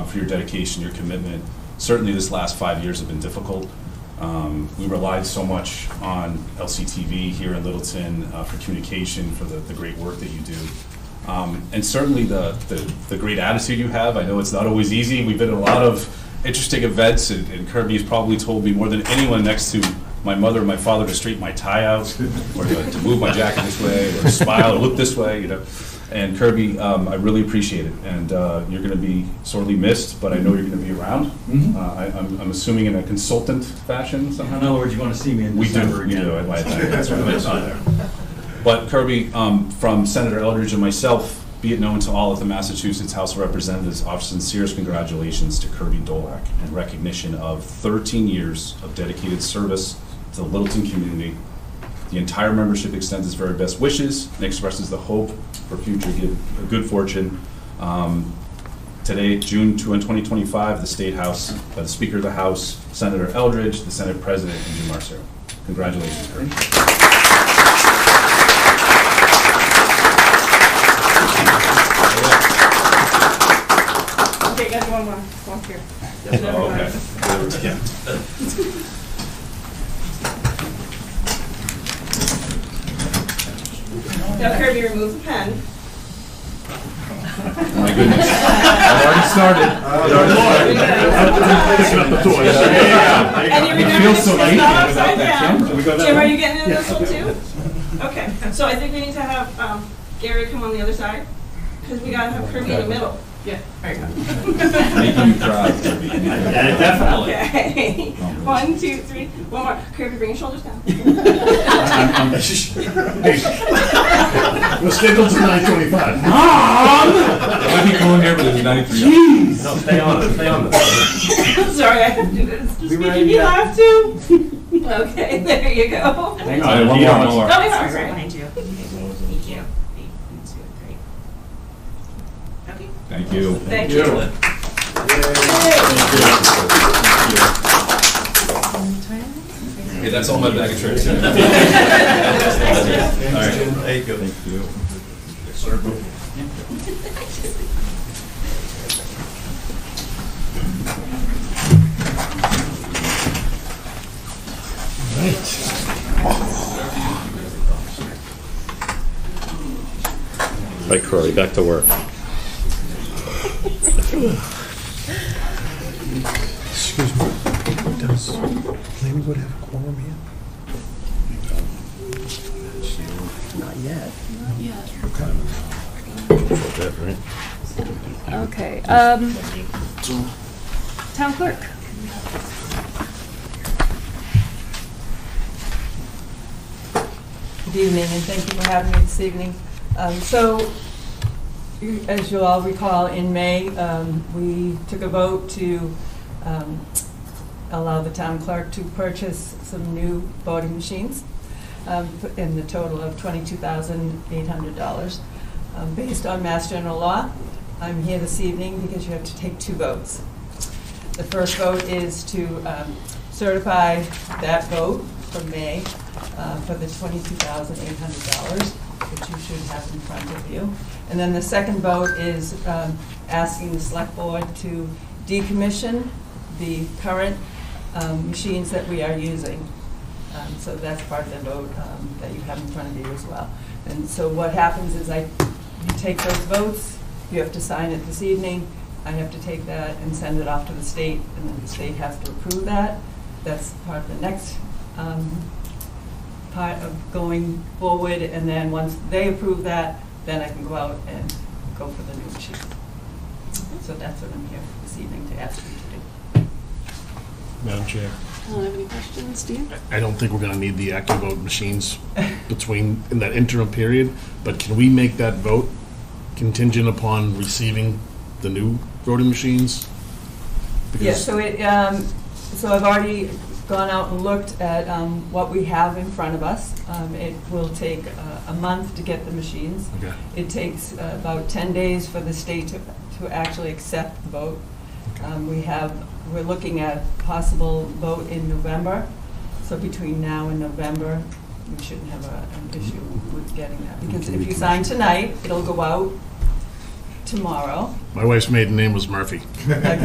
for your dedication, your commitment. Certainly, this last five years have been difficult. Um, We relied so much on LCTV here in Littleton uh, for communication, for the, the great work that you do. Um, And certainly, the, the, the great attitude you have. I know it's not always easy. We've been at a lot of interesting events, and and Kirby's probably told me more than anyone next to my mother and my father to straighten my tie out, or to to move my jacket this way, or smile, or look this way, you know. And Kirby, um, I really appreciate it, and uh, you're going to be sorely missed, but I know you're going to be around. Mhm. Uh, I, I'm, I'm assuming in a consultant fashion somehow. In other words, you want to see me in We do, December we again. do, I lied, that's right, I saw there. But Kirby, um, from Senator Eldridge and myself, be it known to all at the Massachusetts House of Representatives, our sincerest congratulations to Kirby Dolak in recognition of 13 years of dedicated service to the Littleton community. The entire membership extends its very best wishes and expresses the hope for future good- good fortune. Um, Today, June 2, 2025, the State House, by the Speaker of the House, Senator Eldridge, the Senate President, and Jim Marcero. Congratulations, Kirby. Okay, got one more, walk here. Oh, okay. Yeah. Now Kirby, remove the pen. My goodness. I've already started. It already started. And you It remember feels this so was alien not without upside that down. camera. Jim, are you getting in this one too? Okay, so I think we need to have um, Gary come on the other side, because we gotta have Kirby in the middle. Yeah. There you go. Making you Oh, cry, Kirby. Yeah, definitely. Okay, one, two, three, one more. Kirby, bring your shoulders down. We're scheduled to nine twenty-five. I might be going here, but it's 93. No, stay on it, stay on it. Sorry, I have to do this. Just were making me in, uh, laugh too. Okay, there you go. Hang All right, on, one more, one more. That was all right. Behind you. Thank you. Thank you. Great. Okay. Thank you. Thank you. Okay, that's all my bag of tricks. All right. There you go. Thank you. Right, Corey, back to work. Excuse me, does Laneywood have a quorum here? Not yet. Okay, um, town clerk. Good evening, and thank you for having me this evening. Um, So, you- as you all recall, in May, um, we took a vote to um, allow the town clerk to purchase some new voting machines um, in the total of $22,800. Um, Based on Mass General Law, I'm here this evening because you have to take two votes. The first vote is to um, certify that vote from May uh, for the $22,800, which you should have in front of you. And then the second vote is um, asking the select board to decommission the current um, machines that we are using. Um, So that's part of the vote um, that you have in front of you as well. And so what happens is I, you take those votes, you have to sign it this evening, I have to take that and send it off to the state, and then the state has to approve that. That's part of the next um, part of going forward, and then once they approve that, then I can go out and go for the new chief. So that's what I'm here for this evening to ask you to do. Madam Chair. I don't have any questions, do you? I don't think we're gonna need the AccuVote machines between, in that interim period, but can we make that vote contingent upon receiving the new voting machines? Yeah, Because so it, um, so I've already gone out and looked at, um, what we have in front of us. Um, it will take a, a month to get the machines. Okay. It takes uh, about ten days for the state to, to actually accept the vote. Um, we have, we're looking at possible vote in November, so between now and November, we shouldn't have a, an issue with getting that. Because if you sign tonight, it'll go out tomorrow. My wife's maiden name was Murphy.